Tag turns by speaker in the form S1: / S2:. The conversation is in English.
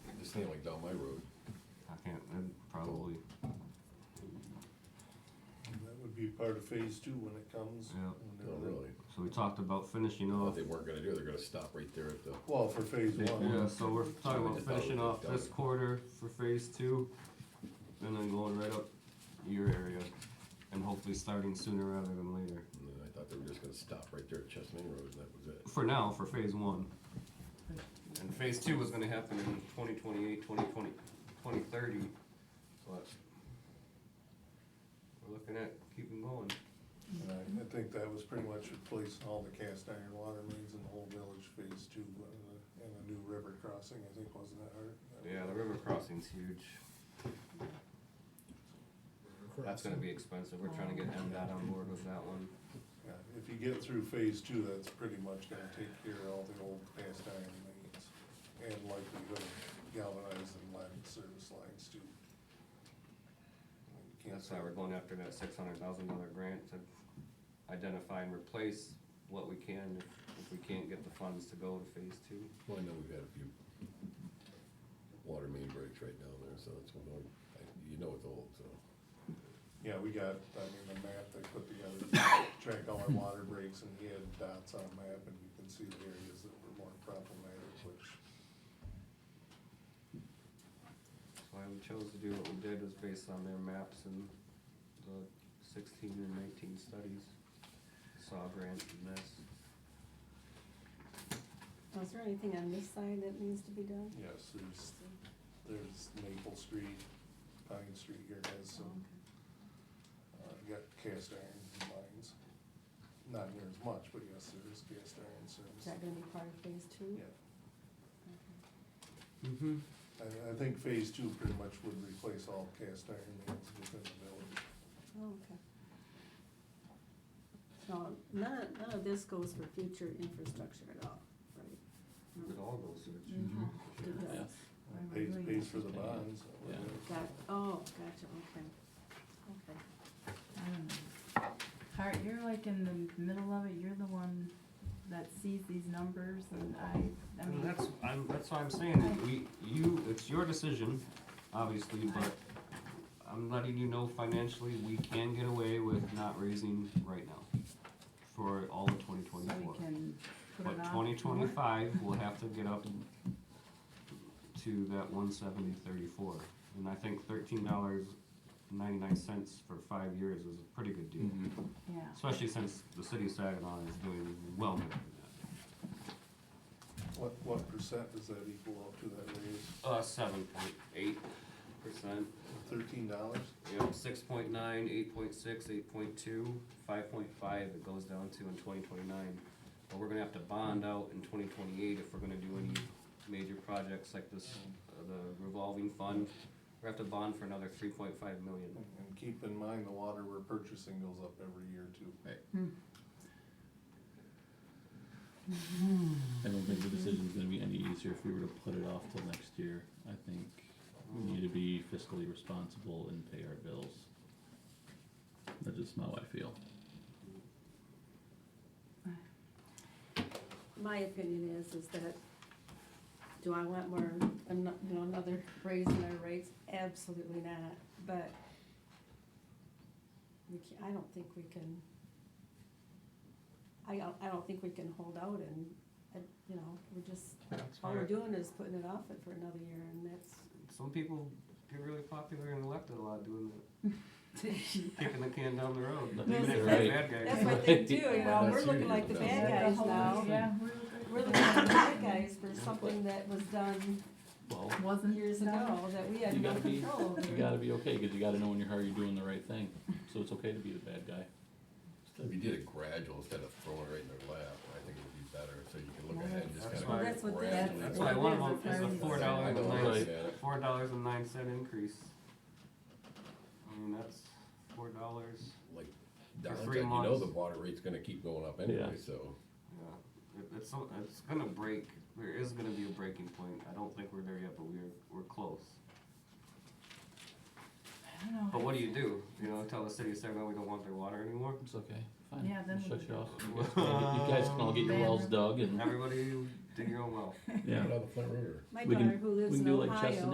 S1: sand like down my road.
S2: I can't, and probably,
S3: That would be part of phase two when it comes.
S2: Yeah.
S3: when
S1: No,
S3: they're-
S1: Oh, really.
S2: so we talked about finishing
S1: What
S2: off.
S1: they weren't gonna do, they're gonna stop right there at the,
S3: Well, for phase
S2: Yeah,
S3: one,
S2: so we're talking about finishing off this quarter for phase two, and then going right up your area, and hopefully starting sooner rather than later.
S1: and then mm, I thought they were just gonna stop right there at Chestnut Road and that was it.
S2: For now, for phase one. And phase two was gonna happen in 2028, 2020, 2030, but we're looking at keeping going.
S3: and I, I think that was pretty much replacing all the cast iron water mains in the whole village, phase two, and a, and a new river crossing, I think, wasn't that hard?
S2: Yeah, the river crossing's huge. That's gonna be expensive, we're trying to get MDOT on board with that one.
S3: Yeah, if you get through phase two, that's pretty much gonna take care of all the old cast iron mains, and likely gonna galvanize and lead service lines too. You can't
S2: That's why we're going after that six hundred thousand dollar grant to identify and replace what we can if, if we can't get the funds to go to phase two.
S1: Well, I know we've had a few water main breaks right down there, so it's, one of- I- you know it's old, so.
S3: Yeah, we got, I mean, the map they put together, track all our water breaks, and he had dots on a map, and you can see the areas that were more problematic, which,
S2: That's why we chose to do what we did was based on their maps and the sixteen and nineteen studies. Saw grant and this.
S4: Oh, Is there anything on this side that needs to be done?
S3: yes, there's, there's Maple Street, Pine Street here has
S4: Oh,
S3: some, uh, you got cast iron mines. Not near as much, but yes, there is cast iron
S4: Is
S3: service.
S4: that gonna be part of phase two?
S3: Yeah,
S4: Okay.
S2: Mm-hmm.
S3: I, I think phase two pretty much would replace all cast iron mains within the village.
S4: Oh, okay. So none of, none of this goes for future infrastructure at all, right?
S2: It all goes through.
S4: It does.
S5: Yeah.
S4: Why am I
S3: Pays,
S4: doing
S3: pays
S4: that?
S3: for the bonds.
S5: Yeah.
S4: Got, oh, gotcha, okay, okay.
S6: I don't know. Hart, you're like in the middle of it, you're the one that sees these numbers and I, I
S2: And
S6: mean,
S2: that's, I'm, that's why I'm saying, we, you, it's your decision, obviously, but I'm letting you know financially, we can get away with not raising right now for all of twenty
S6: so
S2: twenty-four.
S6: we can put it
S2: But
S6: off.
S2: twenty twenty-five, we'll have to get up to that one seventy thirty-four. And I think thirteen dollars ninety-nine cents for five years is a pretty good deal,
S5: Mm-hmm.
S6: Yeah,
S2: especially since the city of Saginaw is doing well better than
S3: What, what percent does that equal up to that raise?
S2: that. Uh, seven point eight percent.
S3: Thirteen dollars?
S2: Yep, six point nine, eight point six, eight point two, five point five it goes down to in twenty twenty-nine. But we're gonna have to bond out in twenty twenty-eight if we're gonna do any major projects like this, uh, the revolving fund. We're gonna have to bond for another three point five million.
S3: And keep in mind, the water we're purchasing goes up every year too.
S5: I don't think the decision's gonna be any easier if we were to put it off till next year. I think we need to be fiscally responsible and pay our bills. That's just how I feel.
S4: My opinion is, is that, do I want more, ano- you know, another raise in our rates? Absolutely not, but we can, I don't think we can, I don't, I don't think we can hold out and, and, you know, we're just, all we're doing is putting it off it for another year and that's,
S2: Some people get really popular and elected a lot doing that, kicking the can down the road.
S5: But
S2: Even if
S5: you're
S2: they're
S5: right.
S2: bad guys.
S4: that's what they do, you know, we're looking like the
S5: Yeah,
S6: Is
S4: bad
S6: that the
S4: guys
S6: whole-
S4: now.
S6: yeah,
S4: We're
S6: we're,
S4: looking like the bad guys for something that was done
S5: Well,
S6: wasn't
S4: years ago that we
S5: You
S4: had no
S5: gotta be-
S4: control over.
S5: you gotta be okay, cause you gotta know when you're hurt, you're doing the right thing. So it's okay to be the bad guy.
S1: If you did it gradual instead of throwing it right in their lap, I think it would be better, so you can look ahead and just
S2: That's
S1: kinda
S2: why-
S1: gradually.
S4: That's what they-
S2: That's why one of them is
S6: That's
S2: a
S6: what
S2: four
S6: it
S2: dollar
S1: I
S2: and
S1: don't
S2: nine,
S1: look at it.
S2: four dollars and nine cent increase. I mean, that's four dollars,
S1: like Don's
S2: three
S1: like, you know
S2: months.
S1: the water rate's gonna keep going up anyway,
S5: Yeah.
S1: so.
S2: yeah, it, it's, so- it's gonna break, there is gonna be a breaking point, I don't think we're there yet, but we're, we're close.
S6: I don't know.
S2: But what do you do, you know, tell the city of Saginaw we don't want their water anymore?
S5: It's okay, fine.
S6: Yeah, then
S5: We'll
S6: we-
S5: Shut you off. You guys can all get your wells dug and
S2: Everybody
S7: Dig your own well.
S4: yeah.
S8: Put it on the front road or-
S2: My
S4: We can-
S2: daughter who lives
S4: we can
S2: in
S4: do like
S2: Ohio.
S4: Chestnut